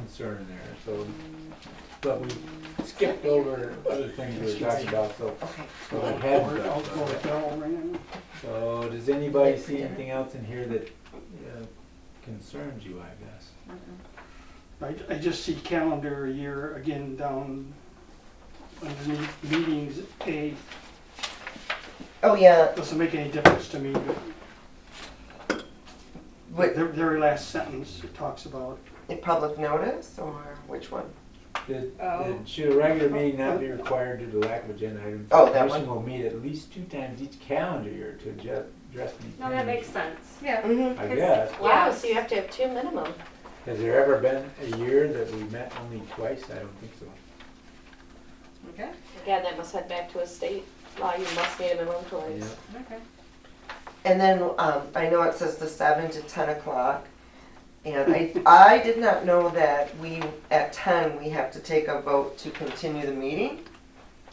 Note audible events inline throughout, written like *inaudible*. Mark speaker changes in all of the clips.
Speaker 1: concern there, so, but we skipped over other things we were talking about, so.
Speaker 2: Okay.
Speaker 1: so that hadn't been
Speaker 3: I'll go
Speaker 1: done.
Speaker 3: with Darrell Rand.
Speaker 1: So, does anybody see anything else in here that uh, concerns you, I guess?
Speaker 3: I, I just see calendar year again down underneath meetings A.
Speaker 2: Oh, yeah,
Speaker 3: Doesn't make any difference to me, but
Speaker 2: with,
Speaker 3: their, their last sentence, it talks about
Speaker 2: in public notice or which one?
Speaker 1: Did-
Speaker 4: Oh.
Speaker 1: did- Should a regular meeting not be required due to lack of agenda items?
Speaker 2: Oh, that
Speaker 1: The commission will meet at least two times each calendar year to adjust, address any.
Speaker 4: No, that makes
Speaker 1: changes.
Speaker 4: sense.
Speaker 5: Yeah.
Speaker 2: Mm-hmm.
Speaker 1: I guess.
Speaker 5: Wow, so you have to have two minimum.
Speaker 1: Has there ever been a year that we met only twice? I don't think so.
Speaker 5: Okay,
Speaker 6: Again, that must head back to a state law, you must meet a minimum twice.
Speaker 1: Yeah.
Speaker 5: okay.
Speaker 2: And then, um, I know it says the seven to ten o'clock. And I, I did not know that we, at ten, we have to take a vote to continue the meeting.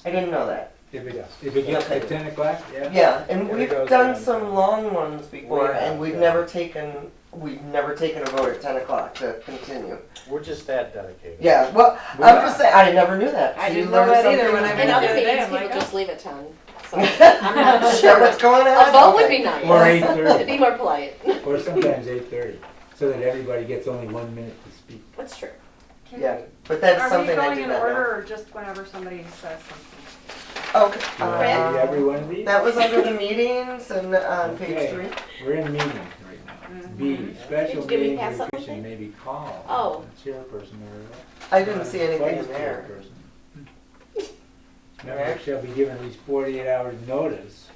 Speaker 2: I didn't know that.
Speaker 1: If it, if it gets like ten o'clock, yeah?
Speaker 2: Yeah, and
Speaker 1: There
Speaker 2: we've
Speaker 1: goes
Speaker 2: done
Speaker 1: the-
Speaker 2: some long ones before and
Speaker 7: have,
Speaker 2: we've
Speaker 7: yeah.
Speaker 2: never taken, we've never taken a vote at ten o'clock to continue.
Speaker 7: We're just that dedicated.
Speaker 2: Yeah, well,
Speaker 1: We
Speaker 2: I'm
Speaker 1: are.
Speaker 2: just saying, I never knew that.
Speaker 5: I
Speaker 2: So you
Speaker 5: didn't know
Speaker 2: learn
Speaker 5: that either
Speaker 2: something
Speaker 5: when I
Speaker 2: new.
Speaker 5: went
Speaker 6: And other
Speaker 5: Yeah,
Speaker 6: meetings,
Speaker 5: damn,
Speaker 6: people
Speaker 5: I
Speaker 6: just leave at ten, *laughs* so I'm
Speaker 2: I'm
Speaker 6: not
Speaker 2: not *laughs* sure what's going on.
Speaker 6: A vote would
Speaker 2: Okay.
Speaker 6: be nice.
Speaker 1: Or eight
Speaker 6: *laughs* It'd be
Speaker 1: thirty,
Speaker 6: more polite,
Speaker 1: or sometimes eight thirty, so that everybody gets only one minute to speak.
Speaker 6: that's true.
Speaker 4: Can
Speaker 2: Yeah,
Speaker 4: we-
Speaker 2: but that's something
Speaker 4: Are
Speaker 2: I
Speaker 4: we
Speaker 2: did
Speaker 4: going in
Speaker 2: not know.
Speaker 4: order or just whenever somebody says something?
Speaker 2: Okay,
Speaker 6: Uh,
Speaker 1: You wanna read
Speaker 2: um,
Speaker 1: every one of these?
Speaker 2: that was under the meetings and on
Speaker 1: Okay.
Speaker 2: page three.
Speaker 1: We're in meeting right now. B, special
Speaker 6: Mm-hmm. Did- did we
Speaker 1: meeting
Speaker 6: pass
Speaker 1: of the
Speaker 6: that
Speaker 1: commission
Speaker 6: one?
Speaker 1: may be called.
Speaker 6: Oh.
Speaker 1: the Chairperson or. Uh,
Speaker 2: I didn't see anything
Speaker 1: vice
Speaker 2: in there.
Speaker 1: chairperson. Members shall be given at least forty-eight hours notice.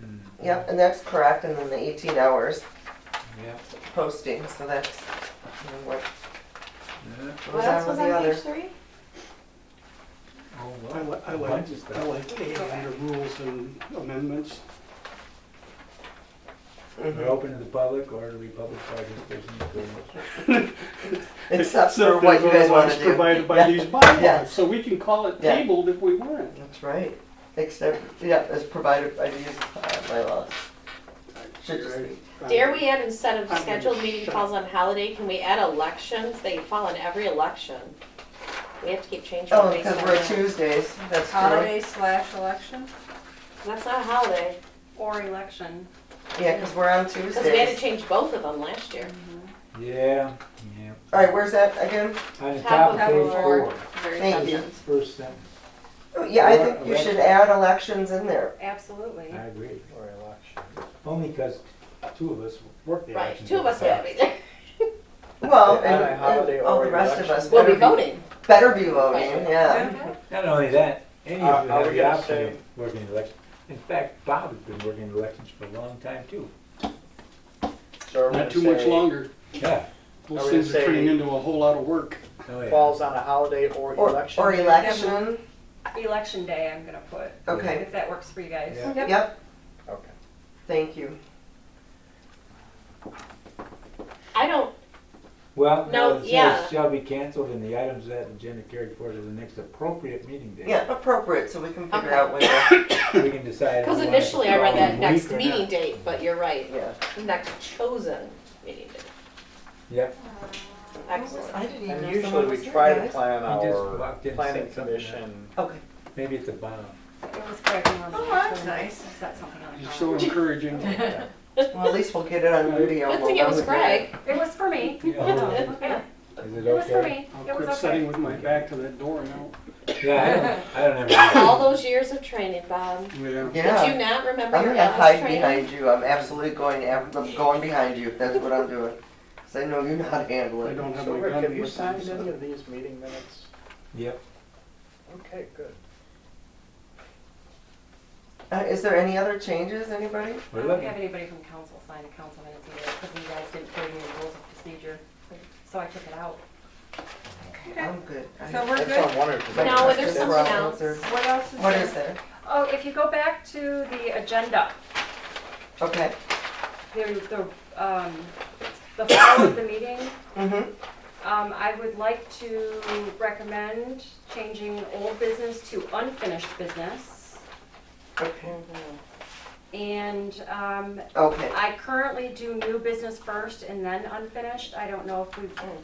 Speaker 1: Hmm,
Speaker 2: Yep, and that's correct, and then the eighteen hours
Speaker 1: Yeah,
Speaker 2: posting, so that's you know, what
Speaker 1: yeah.
Speaker 6: What
Speaker 2: goes
Speaker 6: else
Speaker 2: on
Speaker 6: was
Speaker 2: with the
Speaker 6: on page
Speaker 2: others.
Speaker 6: three?
Speaker 1: Oh,
Speaker 3: I
Speaker 1: well,
Speaker 3: like, I
Speaker 1: a
Speaker 3: like,
Speaker 1: bunch of
Speaker 3: I
Speaker 1: stuff.
Speaker 3: like A under rules and amendments.
Speaker 2: Mm-hmm.
Speaker 1: We're open to the public or to the public participation.
Speaker 2: *laughs*
Speaker 3: *laughs*
Speaker 2: Except for
Speaker 3: Except
Speaker 2: what
Speaker 3: as
Speaker 2: you guys want
Speaker 3: otherwise
Speaker 2: to do.
Speaker 3: Provided by these bylaws,
Speaker 2: Yes.
Speaker 3: so we can call it
Speaker 2: Yeah.
Speaker 3: tabled if we want.
Speaker 2: That's right, except, yeah, as provided by these uh, bylaws. Should just be.
Speaker 6: Dare we add, instead of
Speaker 3: I'm gonna
Speaker 6: scheduled meeting
Speaker 3: shut
Speaker 6: calls on holiday, can we add elections? They fall on every election. We have to keep changing
Speaker 2: Oh,
Speaker 6: it based
Speaker 2: because
Speaker 6: on
Speaker 2: we're
Speaker 6: that.
Speaker 2: Tuesdays, that's true.
Speaker 5: Holiday slash election
Speaker 6: That's not a holiday,
Speaker 4: Or election?
Speaker 2: Yeah, because we're on Tuesdays.
Speaker 6: because we had to change both of them last year.
Speaker 1: Yeah, yeah.
Speaker 2: All right, where's that again?
Speaker 1: On the
Speaker 6: Top
Speaker 1: top of
Speaker 6: of
Speaker 1: page
Speaker 4: four.
Speaker 1: four,
Speaker 4: Very
Speaker 2: Thank you.
Speaker 4: sentence.
Speaker 1: first sentence,
Speaker 2: Oh, Yeah, I think you should add elections in there.
Speaker 4: Absolutely.
Speaker 1: I agree.
Speaker 7: Or election.
Speaker 1: Only because two of us work the
Speaker 6: Right,
Speaker 1: elections.
Speaker 6: two of us will
Speaker 1: all the
Speaker 6: be there.
Speaker 2: Well,
Speaker 7: On a
Speaker 2: and,
Speaker 7: holiday
Speaker 2: and all
Speaker 7: or
Speaker 2: the rest of
Speaker 7: election.
Speaker 2: us better
Speaker 6: *laughs* We'll be
Speaker 2: be,
Speaker 6: voting.
Speaker 2: better be voting, yeah.
Speaker 4: Okay.
Speaker 1: time. Not only that, any of you
Speaker 7: Uh, Are- are
Speaker 1: have
Speaker 7: we
Speaker 1: the
Speaker 7: gonna
Speaker 1: option
Speaker 7: say-
Speaker 1: of working elections. In fact, Bob has been working elections for a long time too.
Speaker 7: So are we
Speaker 3: Not
Speaker 7: gonna
Speaker 3: too much
Speaker 7: say
Speaker 3: longer.
Speaker 1: Yeah.
Speaker 7: Are
Speaker 3: Those
Speaker 7: we gonna
Speaker 3: things are
Speaker 7: say-
Speaker 3: turning into a whole lot of work.
Speaker 1: Oh, yeah.
Speaker 7: Falls on a holiday or
Speaker 2: Or,
Speaker 7: election.
Speaker 2: or election,
Speaker 4: Election day, I'm gonna put,
Speaker 2: okay,
Speaker 4: if that works for you guys.
Speaker 1: Yeah.
Speaker 2: yep,
Speaker 7: Okay.
Speaker 2: thank you.
Speaker 6: I don't,
Speaker 1: Well, no,
Speaker 6: No,
Speaker 1: it
Speaker 6: yeah.
Speaker 1: says shall be canceled and the items of that agenda carried forward to the next appropriate meeting day.
Speaker 2: Yeah, appropriate, so we can figure
Speaker 6: Okay.
Speaker 2: out when, to-
Speaker 1: We can decide.
Speaker 6: because
Speaker 1: if we want it
Speaker 6: initially I read
Speaker 1: following
Speaker 6: that next
Speaker 1: week or not.
Speaker 6: meeting date, but you're right,
Speaker 2: yeah.
Speaker 6: next chosen meeting date.
Speaker 1: Yep.
Speaker 6: *coughs* Excellent.
Speaker 2: I didn't even
Speaker 7: And
Speaker 2: know
Speaker 7: usually
Speaker 2: someone
Speaker 7: we
Speaker 2: was here,
Speaker 7: try to
Speaker 2: guys.
Speaker 7: plan
Speaker 1: He just
Speaker 7: our
Speaker 1: walked in and
Speaker 7: planning
Speaker 1: said something.
Speaker 7: commission.
Speaker 2: Okay,
Speaker 1: Maybe it's a bomb.
Speaker 4: It was cracking on the.
Speaker 5: Oh, that's
Speaker 4: phone.
Speaker 5: nice.
Speaker 4: Is that something on
Speaker 3: You're
Speaker 4: the
Speaker 6: *laughs*
Speaker 3: so encouraging.
Speaker 2: well, at least we'll get it on video.
Speaker 6: Good thing it was Greg.
Speaker 4: It was for me.
Speaker 1: Yeah.
Speaker 6: *laughs*
Speaker 4: Okay.
Speaker 1: Is
Speaker 4: It
Speaker 1: it
Speaker 4: was for
Speaker 1: okay?
Speaker 4: me.
Speaker 3: I'll
Speaker 4: It was
Speaker 3: quit sitting
Speaker 4: okay.
Speaker 3: with my back to that door now.
Speaker 1: Yeah, I don't, I
Speaker 6: *laughs*
Speaker 1: don't have. any-
Speaker 6: All those years of training, Bob.
Speaker 3: Yeah.
Speaker 6: Did
Speaker 2: Yeah,
Speaker 6: you not remember
Speaker 2: I'm
Speaker 6: your
Speaker 2: gonna
Speaker 6: Elvis
Speaker 2: hide
Speaker 6: training?
Speaker 2: behind you, I'm absolutely going, af- I'm going behind you, that's what I'm doing. *laughs* Cause I know you're not handling.
Speaker 3: I don't have
Speaker 7: So
Speaker 3: my
Speaker 7: Rick,
Speaker 3: gun
Speaker 7: have you
Speaker 3: with
Speaker 7: signed
Speaker 3: me.
Speaker 7: any of these meeting minutes?
Speaker 1: Yep.
Speaker 7: Okay, good.
Speaker 2: Uh, is there any other changes, anybody?
Speaker 4: I
Speaker 1: We're
Speaker 4: don't
Speaker 1: looking.
Speaker 4: have anybody from council sign a council minutes either, because you guys didn't give me the rules of procedure, so I took it out.
Speaker 5: Okay,
Speaker 2: I'm good. I-
Speaker 5: so we're
Speaker 7: That's
Speaker 5: good.
Speaker 7: what I'm wondering. 'cause I-
Speaker 6: No,
Speaker 2: That's
Speaker 6: there's
Speaker 2: the
Speaker 6: something
Speaker 2: problem.
Speaker 6: else.
Speaker 2: There's-
Speaker 5: What else is
Speaker 2: What is
Speaker 5: there?
Speaker 2: there?
Speaker 4: Oh, if you go back to the agenda,
Speaker 2: Okay,
Speaker 4: the, the, um, the file of the meeting,
Speaker 2: mm-hmm,
Speaker 4: um, I would like to recommend changing old business to unfinished business.
Speaker 2: okay.
Speaker 4: And um,
Speaker 8: Okay.
Speaker 4: I currently do new business first and then unfinished. I don't know if we